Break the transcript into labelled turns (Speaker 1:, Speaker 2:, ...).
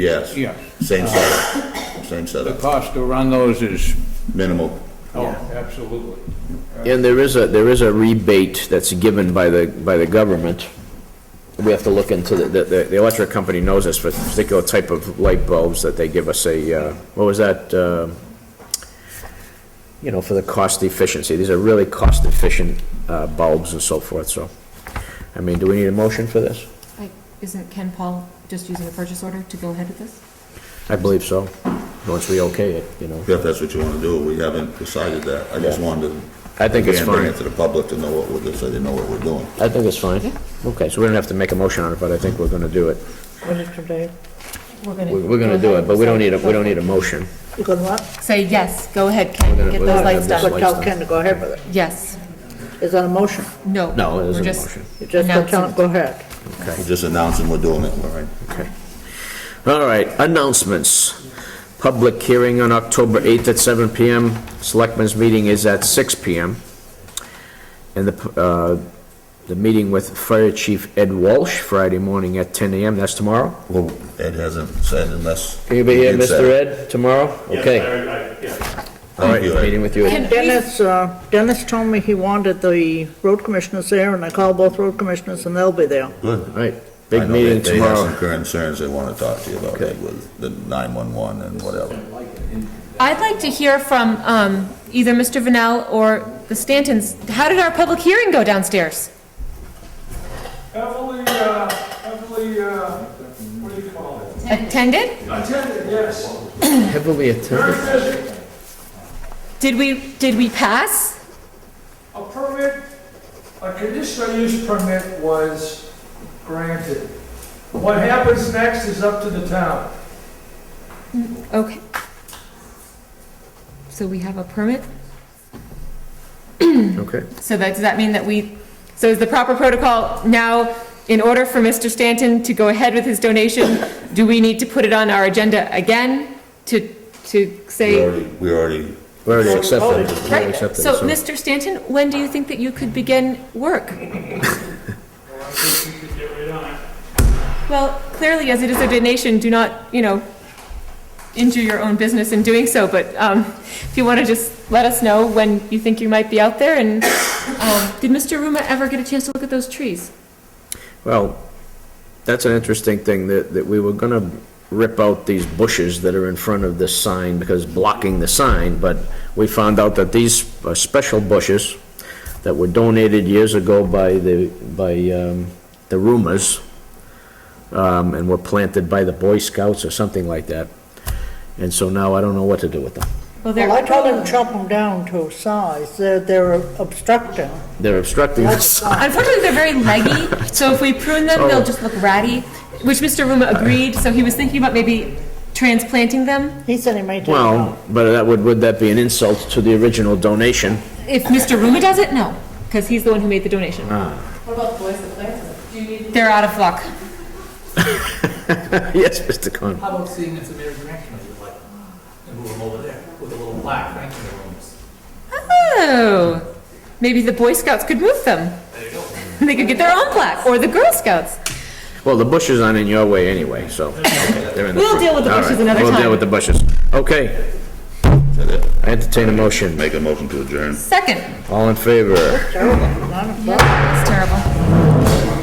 Speaker 1: Yes.
Speaker 2: Yeah.
Speaker 1: Same
Speaker 3: Uh-huh.
Speaker 1: setup, same
Speaker 2: The
Speaker 1: setup,
Speaker 2: cost to run those is,
Speaker 1: minimal.
Speaker 2: oh, absolutely.
Speaker 3: And there is a, there is a rebate that's given by the, by the government. We have to look into, the, the, the electric company knows this for a particular type of light bulbs that they give us a, uh, what was that? uh, You know, for the cost efficiency. These are really cost efficient uh, bulbs and so forth, so. I mean, do we need a motion for this?
Speaker 4: I- Isn't Ken Paul just using a purchase order to go ahead with this?
Speaker 3: I believe so, once we okay it, you know.
Speaker 1: If that's what you want to do, we haven't decided that. I just
Speaker 3: Yeah.
Speaker 1: wanted to.
Speaker 3: I think it's
Speaker 1: again, Bring
Speaker 3: fine.
Speaker 1: it to the public to know what we're, doing, so they know what we're doing.
Speaker 3: I think it's fine. Okay, so we don't have to make a motion on it, but I think we're gonna do it.
Speaker 5: What is today?
Speaker 4: We're gonna.
Speaker 3: We- We're gonna do it, but we don't need a, we don't need a motion.
Speaker 5: You gonna what?
Speaker 4: Say yes, go ahead, Ken,
Speaker 3: gonna-
Speaker 4: get
Speaker 3: we're
Speaker 4: those
Speaker 3: gonna
Speaker 4: lights
Speaker 3: have this
Speaker 4: done.
Speaker 3: light.
Speaker 5: But tell Ken to go ahead with it.
Speaker 4: Yes,
Speaker 5: Is that a motion?
Speaker 4: no.
Speaker 3: No, it
Speaker 4: we're
Speaker 3: isn't a
Speaker 4: just
Speaker 3: motion.
Speaker 5: You just go tell him,
Speaker 4: announcing.
Speaker 5: go ahead.
Speaker 1: We're just announcing we're doing it, all right?
Speaker 3: Okay. All right, announcements. Public hearing on October 8th at 7 PM. Selectmen's meeting is at 6 PM. And the, uh, the meeting with Fire Chief Ed Walsh, Friday morning at 10 AM, that's tomorrow?
Speaker 1: Well, Ed hasn't said unless.
Speaker 3: Can you be here,
Speaker 1: he did say
Speaker 3: Mr.
Speaker 1: it.
Speaker 3: Ed, tomorrow? Okay, all
Speaker 1: Thank
Speaker 3: right,
Speaker 1: you, Ed.
Speaker 3: meeting with you.
Speaker 4: Can we,
Speaker 5: Dennis, uh, Dennis told me he wanted the road commissioners there, and I called both road commissioners, and they'll be there.
Speaker 1: Good.
Speaker 3: All right,
Speaker 1: I
Speaker 3: big
Speaker 1: know they-
Speaker 3: meeting
Speaker 1: They have some
Speaker 3: tomorrow.
Speaker 1: concerns they want to talk to you about,
Speaker 3: Okay.
Speaker 1: like with the 911 and whatever.
Speaker 4: I'd like to hear from, um, either Mr. Vanel or the Stantons. How did our public hearing go downstairs?
Speaker 6: Heavily, uh, heavily, uh, what do you call it?
Speaker 4: Attended?
Speaker 6: Attended, yes.
Speaker 3: Heavily
Speaker 6: Very
Speaker 3: attended.
Speaker 6: busy.
Speaker 4: Did we, did we pass?
Speaker 6: A permit, a conditional use permit was granted. What happens next is up to the town.
Speaker 4: Okay. So we have a permit?
Speaker 3: Okay.
Speaker 4: So that, does that mean that we, so is the proper protocol now, in order for Mr. Stanton to go ahead with his donation, do we need to put it on our agenda again to, to
Speaker 1: We
Speaker 4: say?
Speaker 1: already, we already,
Speaker 3: We already accepted it. We already
Speaker 4: oh, Right,
Speaker 3: accepted it,
Speaker 4: so Mr. Stanton, when do you think that you could begin work? Well, clearly, as it is a donation, do not, you know, injure your own business in doing so, but um, if you want to just let us know when you think you might be out there, and um, did Mr. Ruma ever get a chance to look at those trees?
Speaker 3: Well, that's an interesting thing, that, that we were gonna rip out these bushes that are in front of this sign because blocking the sign, but we found out that these are special bushes that were donated years ago by the, by, um, the rumors, um, and were planted by the Boy Scouts or something like that. And so now I don't know what to do with them.
Speaker 4: they're-
Speaker 5: Well, I told him chop them down to size, they're, they're obstructing.
Speaker 3: They're obstructing the sign.
Speaker 4: Unfortunately, they're very leggy, so if we prune them, they'll just look ratty, which Mr. Ruma agreed, so he was thinking about maybe transplanting them.
Speaker 5: He said he may take them out.
Speaker 3: Well, but that would, would that be an insult to the original donation?
Speaker 4: If Mr. Ruma does it, no, because he's the one who made the donation. They're out of luck.
Speaker 3: Yes, Mr. Conrad.
Speaker 7: How about seeing if the mayor's reaction of your life? And move them over there with a little plaque, thank you, rooms.
Speaker 4: Oh, maybe the Boy Scouts could move them. They could get their own plaque, or the Girl Scouts.
Speaker 3: Well, the bushes aren't in your way anyway, so. okay, they're in
Speaker 4: We'll
Speaker 3: front.
Speaker 4: deal with the
Speaker 3: All
Speaker 4: bushes
Speaker 3: right,
Speaker 4: another
Speaker 3: We'll
Speaker 4: time.
Speaker 3: deal with the bushes. Okay,
Speaker 1: said it.
Speaker 3: I entertain a motion.
Speaker 1: make a motion to adjourn.
Speaker 4: Second,
Speaker 3: All in favor?
Speaker 5: Terrible, not a-
Speaker 4: that's terrible.